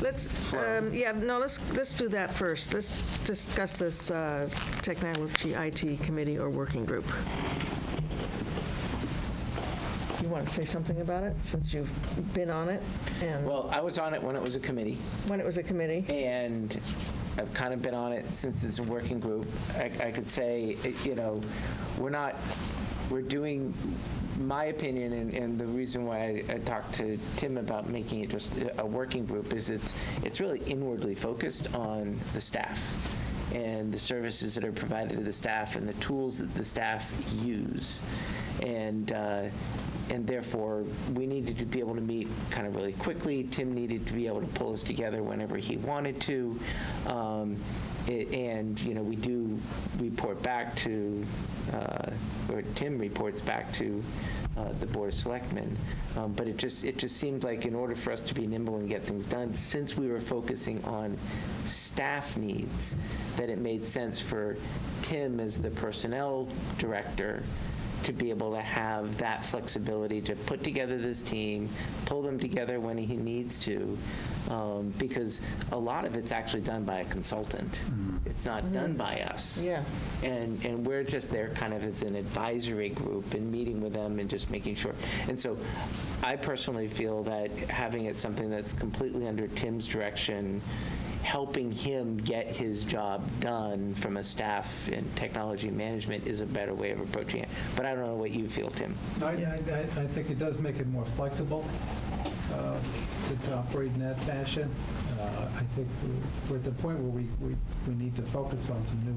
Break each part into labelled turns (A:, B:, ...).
A: Let's, um, yeah, no, let's, let's do that first. Let's discuss this uh, technology IT committee or working group. You want to say something about it, since you've been on it, and
B: Well, I was on it when it was a committee,
A: when it was a committee?
B: and I've kind of been on it since it's a working group. I, I could say, eh, you know, we're not, we're doing, my opinion, and, and the reason why I, I talked to Tim about making it just a- a working group is it's, it's really inwardly focused on the staff and the services that are provided to the staff and the tools that the staff use. And, uh, and therefore, we needed to be able to meet kind of really quickly. Tim needed to be able to pull us together whenever he wanted to. Um, a- And, you know, we do report back to, uh, or Tim reports back to uh, the Board of Selectmen. Um, But it just, it just seemed like in order for us to be nimble and get things done, since we were focusing on staff needs, that it made sense for Tim as the Personnel Director to be able to have that flexibility to put together this team, pull them together when he needs to, um, because a lot of it's actually done by a consultant. It's not done by us.
A: Yeah.
B: And, and we're just there kind of as an advisory group and meeting with them and just making sure. And so I personally feel that having it something that's completely under Tim's direction, helping him get his job done from a staff and technology management is a better way of approaching it. But I don't know what you feel, Tim.
C: I, I, I I think it does make it more flexible uh, to to operate in that fashion. Uh, I think we're- we're at the point where we, we, we need to focus on some new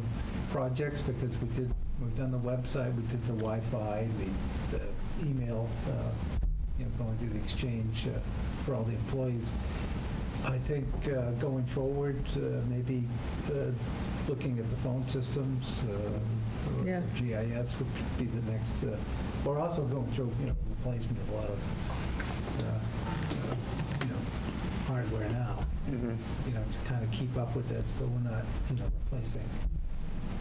C: projects because we did, we've done the website, we did the Wi-Fi, the, the email, uh, you know, going through the exchange uh, for all the employees. I think uh, going forward, uh, maybe uh, looking at the phone systems, um,
A: Yeah.
C: or GIS would be the next, uh, we're also going through, you know, replacement of a lot of, uh, uh, you know, hardware now,
B: Mm-hmm.
C: you know, to kind of keep up with that, so we're not, you know, replacing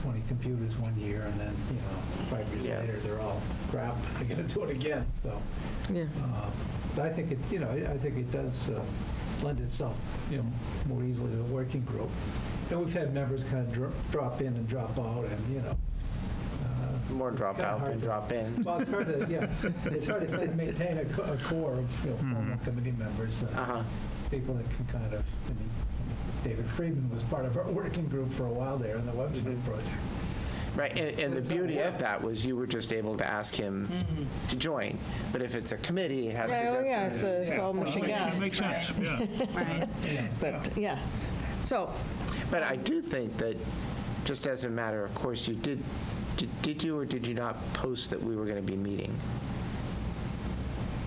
C: 20 computers one year and then, you know, five years
B: Yeah.
C: later, they're all crap, I gotta do it again, so.
A: Yeah.
C: Uh, But I think it, you know, I I think it does uh, lend itself, you know, more easily to a working group. And we've had members kind of drop in and drop out and, you know. uh,
B: More drop
C: kinda
B: out
C: hard
B: than
C: to-
B: drop in.
C: Well, it's hard to, yeah, it's hard to kind of maintain a co- a core of, you know, former committee members, uh,
B: Hmm. Uh-huh.
C: people that can kind of, I mean, David Friedman was part of our working group for a while there in the
B: Mm-hmm.
C: website project.
B: Right, and, and the beauty of that was you were just able to ask him
C: Mm-hmm.
B: to join. But if it's a committee, it has to
A: Oh,
B: go
A: yeah,
B: through.
A: it's a- it's all machine
D: Makes-
A: guns,
D: Makes sense, yeah.
E: Right.
A: but, yeah. So,
B: But I do think that, just as a matter of course, you did, did- did you or did you not post that we were going to be meeting?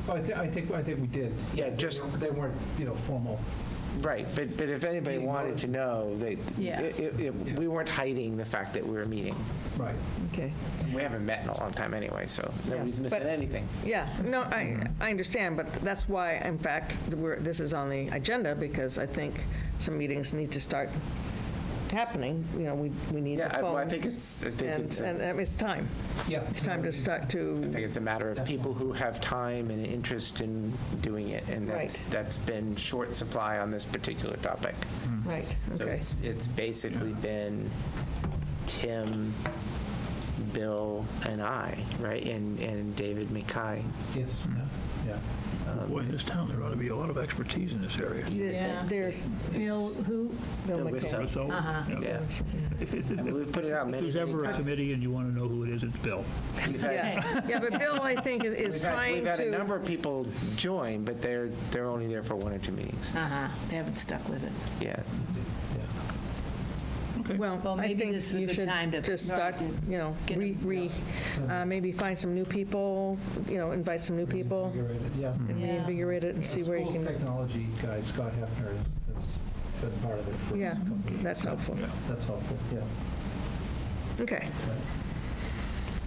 C: Well, I thi- I think, I think we did.
B: Yeah, just-
C: They weren't, you know, formal.
B: Right, but, but if anybody
C: Meeting
B: wanted to know, they,
E: Yeah.
B: it- it- it- we weren't hiding the fact that we were meeting.
C: Right.
A: okay.
B: We haven't met in a long time anyway, so
A: Yeah.
B: nobody's missing
A: But-
B: anything.
A: Yeah, no, I, I understand, but that's why, in fact, we're, this is on the agenda, because I think some meetings need to start happening, you know, we, we need the
B: Yeah, I-
A: phones.
B: well, I think it's, I think
A: And,
B: it's, uh,
A: and
B: a-
A: and it's time.
C: Yeah.
A: It's time to start
B: I
A: to,
B: think it's a matter of people who have time and interest in doing it. And that's,
A: Right.
B: that's been short supply on this particular topic.
A: right,
B: So
A: okay.
B: it's, it's basically been Tim, Bill, and I, right? And, and David McKay.
C: Yes, yeah.
D: Boy, in this town, there ought to be a lot of expertise in this area.
A: Yeah,
E: Yeah.
A: There's.
E: Bill,
B: It's-
E: who,
A: Bill
B: Bill
A: McCall.
B: Whistle.
D: So,
E: Uh-huh.
D: yeah.
B: Yeah.
D: If it-
B: I mean,
D: if
B: we've put it out many,
D: there's
B: many
D: ever a
B: times.
D: committee and you want to know who it is, it's Bill.
B: We've had-
A: Yeah, yeah, but Bill, I think, is is
B: We've had-
A: trying
B: We've had a
A: to,
B: number of people join, but they're, they're only there for one or two meetings.
E: uh-huh, they haven't stuck with it.
A: Uh,
B: Yeah.
D: Okay.
A: well,
E: Well,
A: I
E: maybe
A: think
E: this is a
A: you
E: good
A: should
E: time to
A: just start,
E: start
A: you know,
E: get
A: re,
E: them,
A: re, uh, maybe find some new people, you know, invite some new people.
C: Invigorated, Yeah.
A: and
E: Yeah.
A: reinvigorate it and see where you
C: School's
A: can,
C: technology guy, Scott Hefner, has has been part of it for. a
A: Yeah.
C: couple of years.
A: that's helpful.
D: Yeah.
C: That's helpful, yeah.
A: Okay.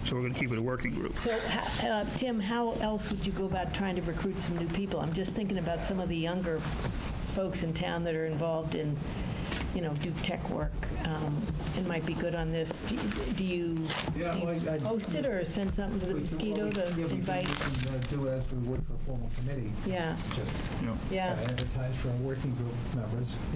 D: So we're going to keep it a working group.
E: So, h- uh, Tim, how else would you go about trying to recruit some new people? I'm just thinking about some of the younger folks in town that are involved in you know, do tech work um, and might be good on this. Do- Do you do
C: Yeah, well, I- I-
E: you post it or send something to the
C: We- we-
E: mosquito to
C: yeah, we can-
E: invite?
C: We can uh, do as we would for a formal committee,
E: Yeah,
C: just
D: you know.
C: uh,
E: yeah.
C: advertise for our working group members.